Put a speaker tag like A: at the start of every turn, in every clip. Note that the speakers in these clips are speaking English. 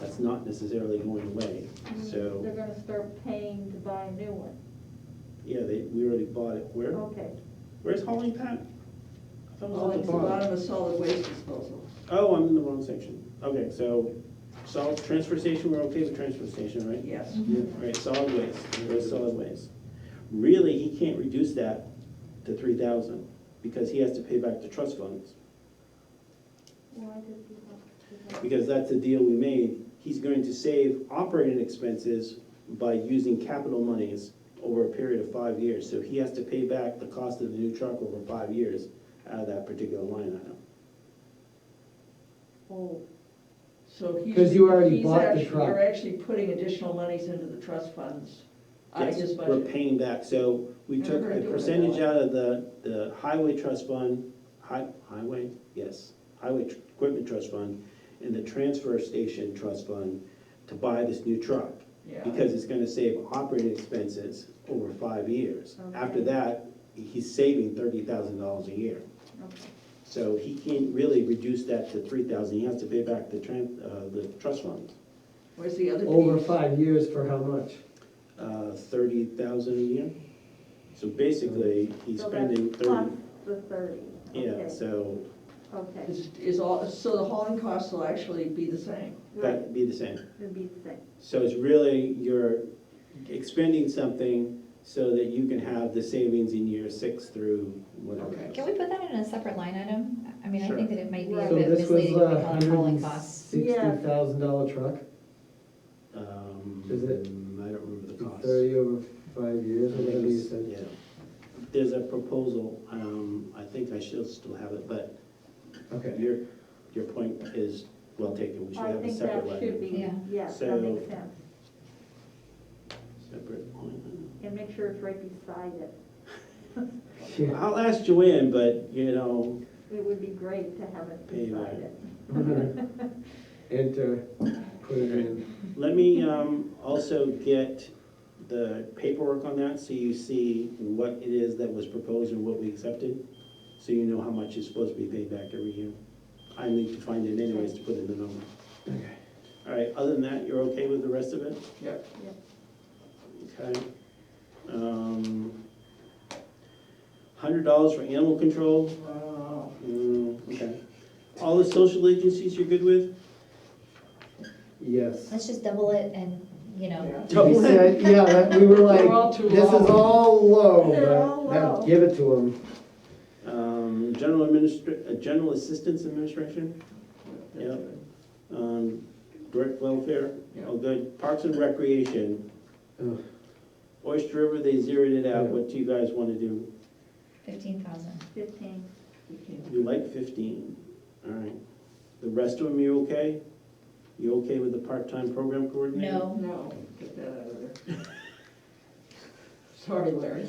A: that's not necessarily going away.
B: Mm, They're
A: So,
B: gonna start paying to buy a new one.
A: yeah, they, we already bought it. Where,
B: Okay.
A: where's hauling Pat? I thought it
C: Oh,
A: was at
C: it's
A: the
C: the bottom
A: bottom.
C: of solid waste disposal.
A: Oh, I'm in the wrong section. Okay, so, solid, transfer station, we're okay with transfer station, right?
C: Yes.
A: All right, solid waste, where's solid waste? Really, he can't reduce that to three thousand, because he has to pay back the trust funds.
B: Why did we have to do that?
A: Because that's the deal we made, he's going to save operating expenses by using capital monies over a period of five years, so he has to pay back the cost of the new truck over five years out of that particular line item.
C: Oh. So he's.
D: 'Cause you already
C: he's
D: bought the
C: actually-
D: truck.
C: You're actually putting additional monies into the trust funds out of
A: Yes,
C: his
A: We're
C: budget.
A: paying back, so we
C: And we're
A: took
C: gonna
A: a
C: do it
A: percentage
C: anyway.
A: out of the, the highway trust fund, hi, highway, yes, highway tr- equipment trust fund, and the transfer station trust fund to buy this new truck,
C: Yeah.
A: because it's gonna save operating expenses over five years. After
B: Okay.
A: that, he's saving thirty thousand dollars a year.
B: Okay.
A: So he can't really reduce that to three thousand, he has to pay back the tran, uh, the trust fund,
C: Where's the other piece?
D: Over five years for how much?
A: uh, thirty thousand a year. So basically, he's
B: So
A: spending
B: that's
A: thirty.
B: Plus the thirty.
A: Yeah,
B: Okay,
A: so
B: Okay,
C: Is, is all, so the hauling costs will actually be the same.
B: right,
A: that'd be the same.
B: it'd be the same.
A: So it's really, you're expending something so that you can have the savings in year six through whatever.
C: Okay.
E: Can we put that in a separate line item? I mean, I
A: Sure.
E: think that it might be a
B: Right.
D: So
E: bit
D: this was
E: misleading if we
D: a
E: call it
D: hundred
E: hauling
D: and
E: costs.
D: sixty thousand dollar truck,
A: Um,
D: Is it-
A: I don't remember the cost.
D: thirty over five years,
A: I
D: or
A: think
D: whatever you
A: it's-
D: said.
A: yeah. There's a proposal, um, I think I should still have it, but
D: Okay,
A: your, your point is well taken. We should
B: I
A: have a
B: think
A: separate
B: that should
A: line.
B: be,
E: Yeah.
B: yes,
A: So-
B: that makes sense.
A: Separate line.
B: And make sure it's right beside it.
D: yeah,
A: I'll ask Joanne, but, you know,
B: It would be great to have it
A: Pay that.
B: beside it.
D: we're gonna enter, put it in.
A: Let me um, also get the paperwork on that, so you see what it is that was proposed and what we accepted, so you know how much is supposed to be paid back every year. I need to find it anyways to put in the number.
D: Okay.
A: All right, other than that, you're okay with the rest of it?
C: Yep.
A: Okay. Um, Hundred dollars for animal control,
C: Wow.
A: Mm, okay. All the social agencies you're good with?
D: Yes.
E: Let's just double it and, you know,
C: Yeah.
D: We said, yeah, that- we were
C: They're all
D: like,
C: too
D: this is
C: low."
D: all
B: They're all
D: low, but
B: low.
D: have- give it to them.
A: Um, General administr, uh, general assistance administration?
C: That's
A: Yep.
C: good.
A: Um, direct welfare,
C: Yeah.
A: oh, good, parks and recreation.
D: Ugh.
A: Oyster River, they zeroed it out,
D: Yeah.
A: what do you guys wanna do?
E: fifteen thousand.
B: Fifteen,
C: We can-
A: You like fifteen, alright. The rest of them, you okay? You okay with the part-time program coordinator?
E: No,
C: oh, No, get that out of there. Sorry, Larry.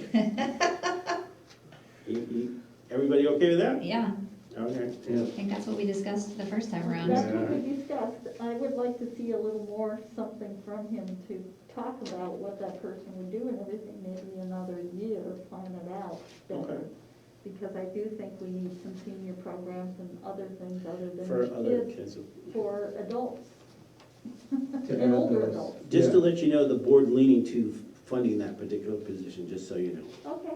A: You- you- everybody okay with that?
E: yeah,
A: Okay,
D: Yeah.
E: I think that's what we discussed the first time around.
B: that's what we discussed. I would like to see a little more something from him to talk about what that person would do and everything, maybe another year, find it out
A: Okay.
B: better. Because I do think we need some senior programs and other things other
A: for
B: than
A: other
B: kids
A: kids.
B: for adults.
D: To
B: And
D: add
B: older
D: those.
B: adults.
A: Just to let you know, the board leaning to funding that particular position, just so you know.
B: Okay,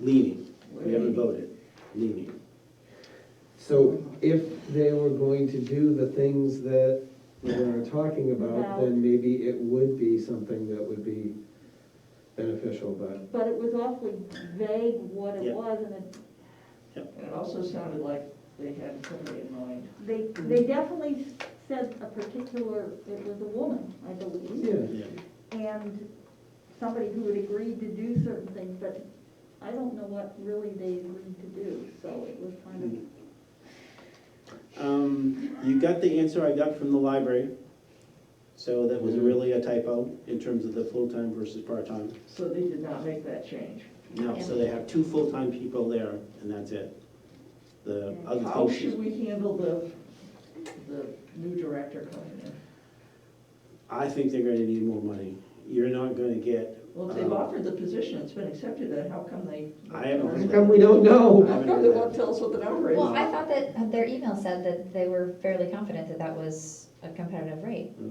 A: Leaning, we haven't voted, leaning.
D: So if they were going to do the things that we are talking about, then maybe it would be something that would be beneficial, but
B: but it was awfully vague what
A: Yeah.
B: it was and it,
C: And it also sounded like they had somebody in mind.
B: they, they definitely said a particular, it was a woman, I believe.
D: yeah.
A: Yeah.
B: and somebody who had agreed to do certain things, but I don't know what really they agreed to do, so it was kind of.
A: Mm-hmm. Um, you got the answer I got from the library. So that was really a typo in terms of the full-time versus part-time.
C: So they did not make that change.
A: No, so they have two full-time people there and that's it. The other
C: How
A: thing,
C: should
A: she-
C: we handle the, the new director coming in?
A: I think they're gonna need more money. You're not gonna get,
C: Well, if they've
A: Uh,
C: offered the position, it's been accepted, then how come they?
A: I haven't
D: How come we don't know?
C: How come they won't tell us what the number is?
E: Well, I thought that their email said that they were fairly confident that that was a competitive rate.